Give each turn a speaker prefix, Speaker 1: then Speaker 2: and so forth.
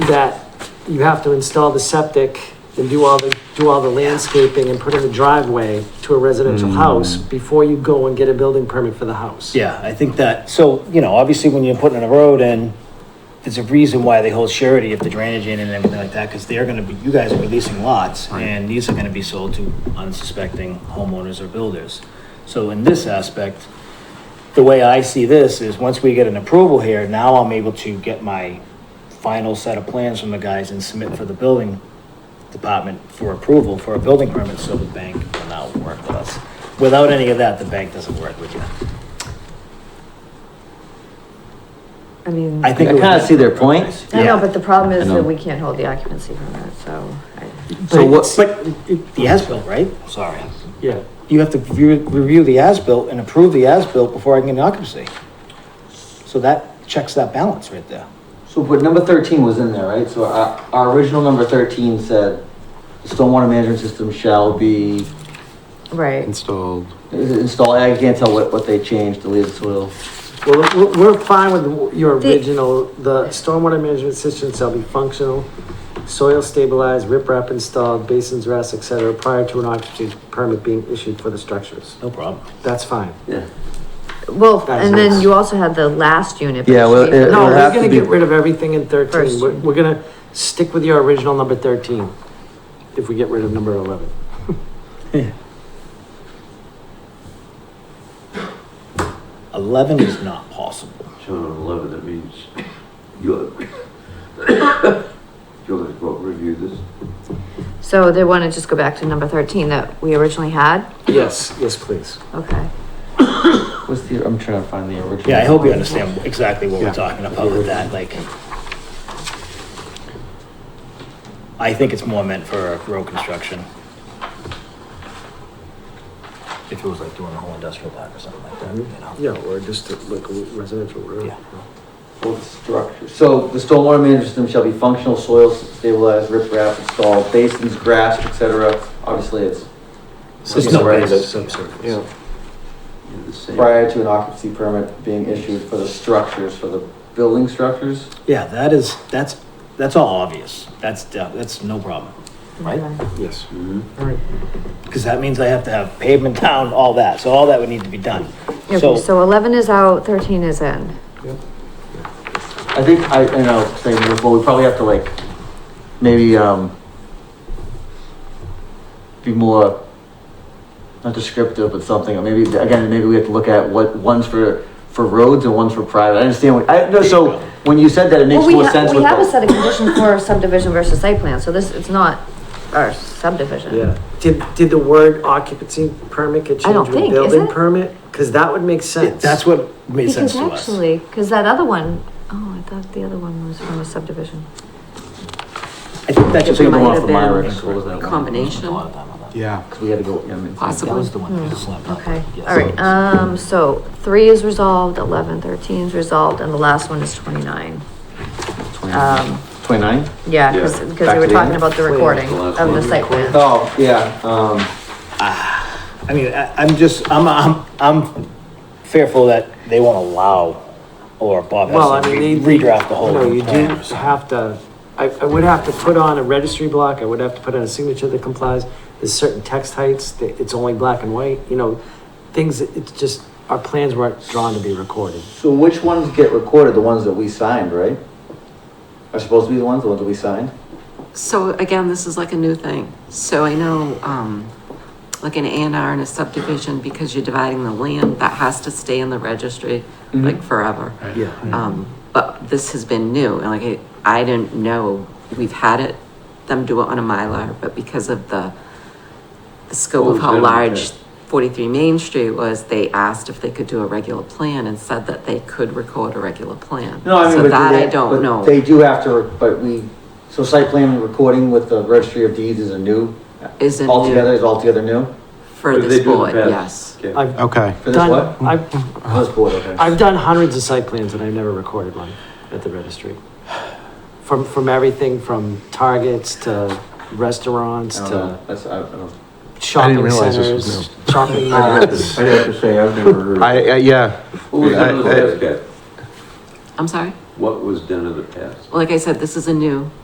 Speaker 1: that you have to install the septic and do all the, do all the landscaping and put in the driveway to a residential
Speaker 2: Mm.
Speaker 1: house before you go and get a building permit for the house.
Speaker 3: Yeah, I think that, so, you know, obviously when you're putting in a road in, there's a reason why they hold surety if the drainage in and everything like that, because they're gonna be, you guys are releasing lots, and these are gonna be sold to unsuspecting homeowners or builders. So in this aspect, the way I see this is, once we get an approval here, now I'm able to get my final set of plans from the guys and submit for the building department for approval for a building permit, so the bank will now work with us. Without any of that, the bank doesn't work with you.
Speaker 4: I mean,
Speaker 3: I
Speaker 4: I
Speaker 3: think.
Speaker 2: I
Speaker 3: it was-
Speaker 2: kinda see their point.
Speaker 4: know, but the problem is
Speaker 2: I know.
Speaker 4: that we can't hold the occupancy permit, so. I-
Speaker 2: So what,
Speaker 3: But it- the as-built, right? Sorry.
Speaker 1: Yeah.
Speaker 3: You have to view- review the as-built and approve the as-built before I can get an occupancy. So that checks that balance right there.
Speaker 2: so but number thirteen was in there, right? So our, our original number thirteen said, "The stormwater management system shall be Mm-hmm.
Speaker 4: Right,
Speaker 5: installed.
Speaker 2: installed, I can't tell what, what they changed, deleted soil.
Speaker 1: Well, we're, we're fine with your
Speaker 4: The-
Speaker 1: original, the stormwater management system shall be functional, soil stabilized, riprap installed, basins rest, et cetera, prior to an occupancy permit being issued for the structures.
Speaker 3: No problem.
Speaker 1: That's fine.
Speaker 2: Yeah.
Speaker 4: well,
Speaker 1: Guys,
Speaker 4: and then
Speaker 1: it's-
Speaker 4: you also had the last unit. but
Speaker 2: Yeah, well,
Speaker 4: should be-
Speaker 2: it-
Speaker 1: No,
Speaker 2: It'll
Speaker 1: we're
Speaker 2: have to
Speaker 1: gonna
Speaker 2: be-
Speaker 1: get rid of everything in thirteen.
Speaker 4: First.
Speaker 1: We're, we're gonna stick with your original number thirteen. If we get rid of number eleven.
Speaker 3: Eleven is not possible.
Speaker 6: Shown on eleven, that means you'll, you'll have to go review this.
Speaker 4: So they want to just go back to number thirteen that we originally had?
Speaker 1: Yes, yes, please.
Speaker 4: Okay,
Speaker 2: What's the, I'm trying to find the original.
Speaker 3: Yeah, I hope you understand exactly what
Speaker 1: Yeah.
Speaker 3: we're talking about with that, like. I think it's more meant for road construction. If it was like doing a whole industrial park or something like that, you know?
Speaker 1: Yeah, or just like a residential road.
Speaker 3: Yeah.
Speaker 2: Well, the structure. So the stormwater management system shall be functional, soil stabilized, riprap installed, basins, grass, et cetera. Obviously, it's
Speaker 3: There's no
Speaker 2: Right.
Speaker 3: basis.
Speaker 1: Yeah.
Speaker 6: You're the same.
Speaker 2: prior to an occupancy permit being issued for the structures, for the building structures.
Speaker 3: Yeah, that is, that's, that's all obvious. That's, de- that's no problem, right?
Speaker 4: okay.
Speaker 1: Yes.
Speaker 6: Mhm.
Speaker 3: Because that means I have to have pavement down, all that, so all that would need to be done.
Speaker 4: Okay,
Speaker 3: So,
Speaker 4: so eleven is out, thirteen is in.
Speaker 2: I think I, and I was saying, well, we probably have to like, maybe, um, be more, not descriptive, but something, or maybe, again, maybe we have to look at what, one's for, for roads and one's for private. I understand what, I, no, so when you said that, it makes
Speaker 4: Well, we
Speaker 2: more
Speaker 4: ha-
Speaker 2: sense with
Speaker 4: We have a
Speaker 2: the.
Speaker 4: set of conditions for subdivision versus site plan, so this, it's not our subdivision.
Speaker 1: Yeah. Did, did the word occupancy permit get
Speaker 4: I don't
Speaker 1: changed with
Speaker 4: think, is
Speaker 1: building
Speaker 4: it?
Speaker 1: permit? Cause that would make sense.
Speaker 3: that's what made sense
Speaker 4: Because
Speaker 3: to us.
Speaker 4: actually, because that other one, oh, I thought the other one was from a subdivision.
Speaker 3: I think that
Speaker 2: I
Speaker 3: just.
Speaker 2: think the
Speaker 7: might
Speaker 2: one
Speaker 7: have
Speaker 2: for Myra,
Speaker 7: been
Speaker 2: what was that one?
Speaker 7: combination.
Speaker 3: A lot of time on that.
Speaker 5: Yeah.
Speaker 2: Cause we had to go, yeah, I mean.
Speaker 3: That
Speaker 7: Possibly.
Speaker 3: was the one that slammed up.
Speaker 4: Hmm. Okay,
Speaker 3: Yes.
Speaker 4: all right, um, so three is resolved, eleven, thirteen is resolved, and the last one is twenty-nine. Um,
Speaker 2: Twenty-nine?
Speaker 4: yeah, because, because
Speaker 6: Yeah.
Speaker 4: they were
Speaker 2: Back to the
Speaker 4: talking
Speaker 2: end.
Speaker 4: about the recording
Speaker 6: the
Speaker 4: of
Speaker 6: last
Speaker 4: the
Speaker 6: one.
Speaker 4: site plan.
Speaker 2: Oh, yeah, um.
Speaker 3: I mean, I, I'm just, I'm, I'm, I'm fearful that they won't allow, or Bob
Speaker 1: Well, I
Speaker 3: has to
Speaker 1: mean,
Speaker 3: re-
Speaker 1: they.
Speaker 3: redraft the whole.
Speaker 1: No, you do
Speaker 3: plan or something.
Speaker 1: have to, I, I would have to put on a registry block, I would have to put on a signature that complies. There's certain text heights, that it's only black and white, you know, things, that it's just, our plans weren't drawn to be recorded.
Speaker 2: So which ones get recorded? The ones that we signed, right? Are supposed to be the ones, the ones that we signed?
Speaker 7: So again, this is like a new thing. So I know, um, like an A and R and a subdivision, because you're dividing the land, that has to stay in the registry,
Speaker 2: Mm-hmm.
Speaker 7: like forever.
Speaker 1: Yeah.
Speaker 7: Um, but this has been new, and like, I I didn't know, we've had it, them do it on a Mylar, but because of the the scope
Speaker 6: Oh,
Speaker 7: of how
Speaker 6: yeah,
Speaker 7: large
Speaker 6: yeah.
Speaker 7: forty-three Main Street was, they asked if they could do a regular plan and said that they could record a regular plan.
Speaker 2: No, I mean,
Speaker 7: So
Speaker 2: but
Speaker 7: that
Speaker 2: they,
Speaker 7: I
Speaker 2: but
Speaker 7: don't know.
Speaker 2: They do have to, re- but we, so site plan and recording with the registry of deeds is a new.
Speaker 7: Is a new-
Speaker 2: Altogether, is altogether new
Speaker 7: For
Speaker 6: What did they
Speaker 7: this
Speaker 6: do in the
Speaker 7: board,
Speaker 6: past?
Speaker 7: yes.
Speaker 6: Okay.
Speaker 1: I've
Speaker 5: Okay.
Speaker 2: for this
Speaker 1: done-
Speaker 2: what?
Speaker 1: I've,
Speaker 2: For This board, okay.
Speaker 1: I've done hundreds of site plans and I've never recorded one at the registry. From, from everything from targets to
Speaker 2: I
Speaker 1: restaurants
Speaker 2: don't
Speaker 1: to
Speaker 2: know, that's, I I don't.
Speaker 1: shopping
Speaker 5: realize this was
Speaker 1: centers, shopping
Speaker 6: I'd have to-
Speaker 1: malls.
Speaker 6: I'd have to say, I've never heard.
Speaker 5: I, I yeah.
Speaker 6: What was done in the
Speaker 5: I- I-
Speaker 6: past, Kat?
Speaker 7: I'm sorry?
Speaker 6: What was done in the past?
Speaker 7: Like I said, this is a new